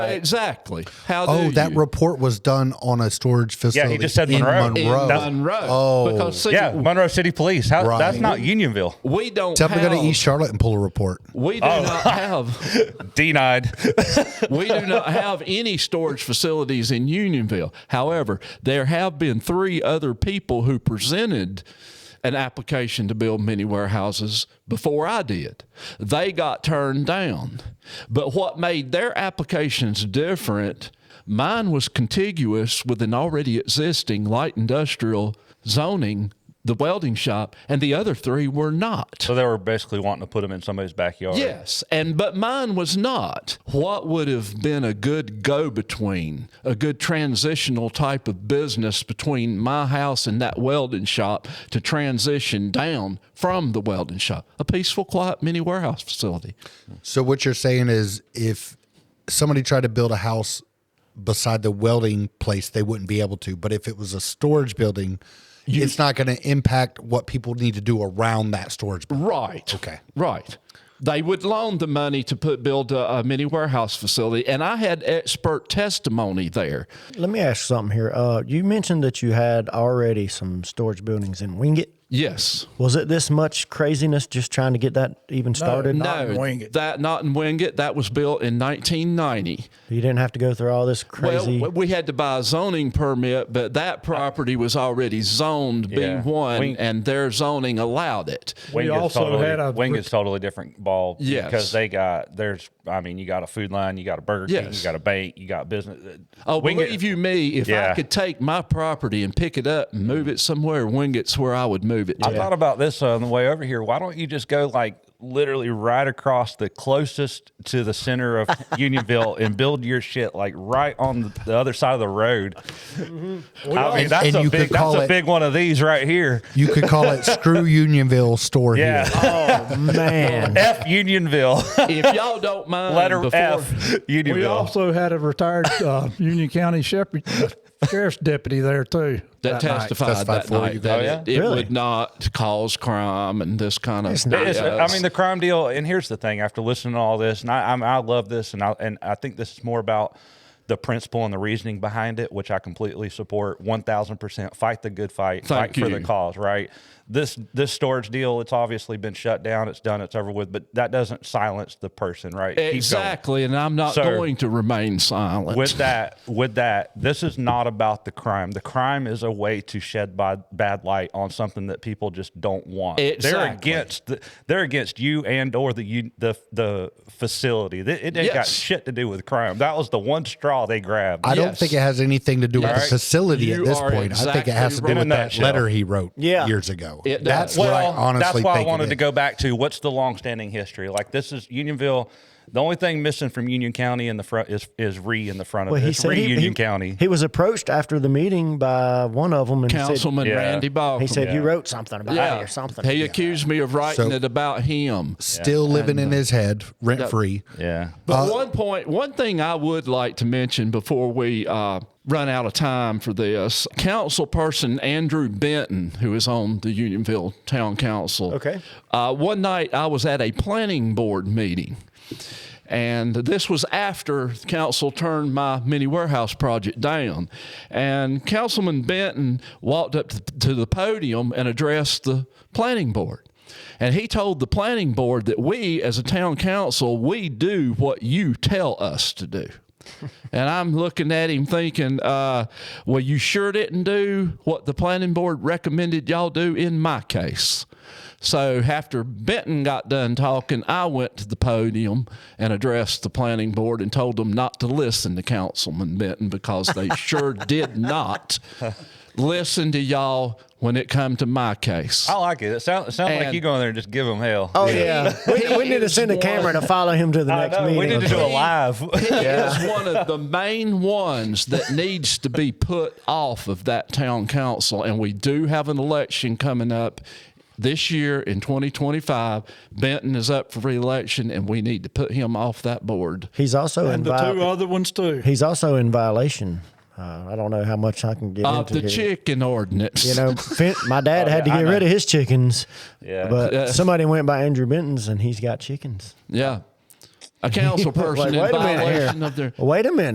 Exactly. How? Oh, do that you? report was done on a storage facility. just said in Monroe. Monroe. In That's, Monroe. Oh, Because see, yeah, Monroe City Police. How, Right. That's not Unionville. we don't tell me to have, go to East Oh. Charlotte and pull a report. we do not have Denied. we do not have any storage facilities in Unionville. However, there have been three other people who presented an application to build mini warehouses before I did. They got turned down. But what made their applications different, mine was contiguous with an already existing light industrial zoning, the welding shop, and the other three were not. so they were basically wanting to put them in somebody's backyard. Yes, and but mine was not. What would have been a good go between, a good transitional type of business between my house and that welding shop to transition down from the welding shop? A peaceful, quiet mini warehouse facility. So what you're saying is, if somebody tried to build a house beside the welding place, they wouldn't be able to. But if it was a storage building, it's not going to impact what people need to do around that storage. building. Right. Okay. Right. They would loan the money to put build a, a mini warehouse facility, and I had expert testimony there. Let me ask something here. Uh, you mentioned that you had already some storage buildings in Wingate. Yes. Was it this much craziness just trying to get that even started? Not in Wingate. that not in Wingate. That was built in 1990. You didn't have to go through all this crazy. Well, we had to buy a zoning permit, but that property was already zoned Yeah. B1, We- and their zoning allowed it. Wing We is also totally, had a- Wing is totally different ball Yes. because they got there's I mean you got a food line you got a Burger King Yes. you got a bank you got business Oh, Wing it- believe you me, if I Yeah. could take my property and pick it up and move it somewhere, Wingate's where I would move it to. I thought about this uh, on the way over here. Why don't you just go like literally right across the closest to the center of Unionville and build your shit like right on the other side of the road? Mm-hmm. I mean, that's And a you could big that's call a it- big one of these right here. You could call it "Screw Unionville Store." Yeah. Here. oh man, F Unionville. if y'all don't mind, Letter before, F Unionville. We also had a retired uh, Union County Shepherd Sheriff's deputy there too. that, testified, Testified that for you night guys. that Oh, yeah? it, it would not cause crime and this kind of not. It's- BS. I mean, the crime deal. And here's the thing: after listening to all this, and I, I'm, I love this, and I and I think this is more about the principle and the reasoning behind it, which I completely support. One thousand percent, fight the good fight, Thank fight for the you. cause. Right. This this storage deal, it's obviously been shut down. It's done. It's over with. But that doesn't silence the person, right? Keep going. exactly, and I'm not So- going to remain silent. With that, with that, this is not about the crime. The crime is a way to shed bad, bad light on something that people just don't want. They're Exactly. against the, they're against you and or the you, the the facility. It, it ain't got Yes. shit to do with crime. That was the one straw they grabbed. I don't Yes. think it has anything to do with Yes. the facility You at this are point. I think exactly it has to do right. with In a that nutshell. letter he wrote Yeah. years ago. It does. that's well, what I honestly that's why I think it wanted to is. go back to what's the longstanding history. Like this is Unionville. The only thing missing from Union County in the front is is re in the front of well, it. he It's said re he, Union he- County. He was approached after the meeting by one of them and Councilman Yeah. Randy Balcom. said, "He said you wrote something about it or something." He accused me of writing So- it about him. Still living in his head, rent free. yeah. But one point, one thing I would like to mention before we uh, run out of time for this, Councilperson Andrew Benton, who is on the Unionville Town Council. Okay. Uh, one night I was at a planning board meeting, and this was after council turned my mini warehouse project down. And Councilman Benton walked up t- to the podium and addressed the planning board. And he told the planning board that we, as a town council, we do what you tell us to do. And I'm looking at him thinking, uh, well, you sure didn't do what the planning board recommended y'all do in my case. So after Benton got done talking, I went to the podium and addressed the planning board and told them not to listen to Councilman Benton because they sure did not listen to y'all when it come to my case. I like it. It sounds it sounds like And- you go in there and just give them hell. Oh yeah, we, we need to send a camera to follow him to the I next know. meeting. We need to do a live. He is one of the main ones that needs to be put off of that town council. And we do have an election coming up this year in 2025. Benton is up for reelection, and we need to put him off that board. He's also in And the two vi- other ones too. he's also in violation. Uh, I don't know how much I can get Of Uh, into the here. chicken ordinance. You know, fin- my dad had to Oh, yeah, I get know. rid of his chickens. Yeah. But Yeah. somebody went by Andrew Benton's and he's got chickens. yeah. a council person Like, in wait a minute violation here. of their Wait a minute.